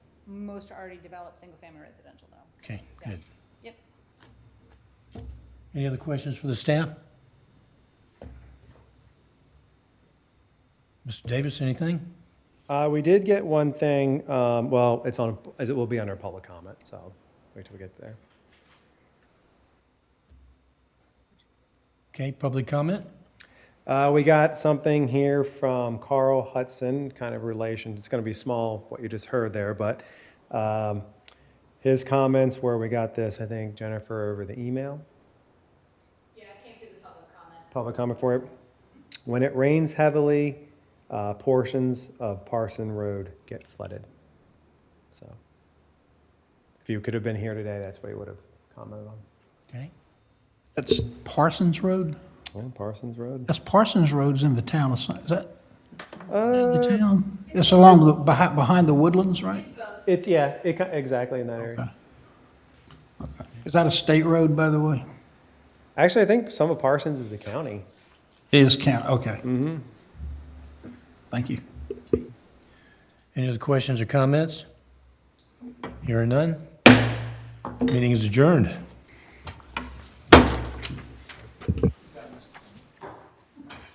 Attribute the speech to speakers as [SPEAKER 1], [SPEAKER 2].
[SPEAKER 1] most are already developed, single-family residential though.
[SPEAKER 2] Okay,
[SPEAKER 1] So,
[SPEAKER 2] good.
[SPEAKER 1] Yep.
[SPEAKER 2] Any other questions for the staff? Mr. Davis, anything?
[SPEAKER 3] Uh, we did get one thing, um, well, it's on, it will be under public comment, so wait till we get there.
[SPEAKER 2] Okay, public comment?
[SPEAKER 3] Uh, we got something here from Carl Hudson, kind of relation, it's gonna be small, what you just heard there, but, um, his comments where we got this, I think Jennifer over the email.
[SPEAKER 1] Yeah, I came through the public comment.
[SPEAKER 3] public comment for it. When it rains heavily, uh, portions of Parson Road get flooded. So if you could have been here today, that's what you would have commented on.
[SPEAKER 2] Okay.
[SPEAKER 4] That's Parsons Road?
[SPEAKER 3] Yeah, Parsons Road.
[SPEAKER 4] That's Parsons Road's in the town of, Sun- is that in the town? It's along the, behind, behind the woodlands, right?
[SPEAKER 3] It's, yeah, it, ki- exactly in that area.
[SPEAKER 4] Is that a state road, by the way?
[SPEAKER 3] Actually, I think some of Parsons is the county.
[SPEAKER 4] It is county, okay. Mm-hmm. Thank you.
[SPEAKER 2] Any other questions or comments? Hearing none? Meeting is adjourned.